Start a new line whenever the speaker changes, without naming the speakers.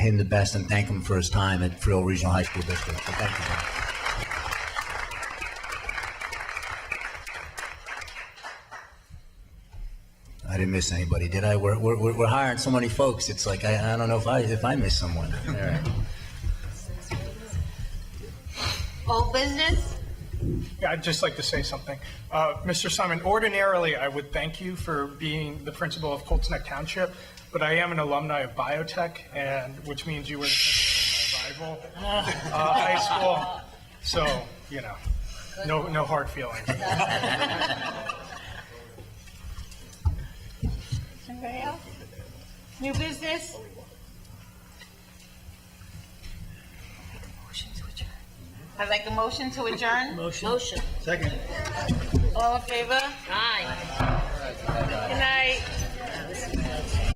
him the best and thank him for his time at Frill Regional High School District. So thank you, Bob. I didn't miss anybody, did I? We're, we're, we're- we're hiring so many folks. It's like, I, I don't know if I, if I missed someone. All right.
Old business?
Yeah, I'd just like to say something. Uh, Mr. Simon, ordinarily, I would thank you for being the principal of Colts Neck Township, but I am an alumni of biotech, and, which means you were my rival uh, high school. So, you know, no, no hard feelings.
Anybody else? New business? I'd like a motion to adjourn.
Motion.
All in favor? Aye. Good night.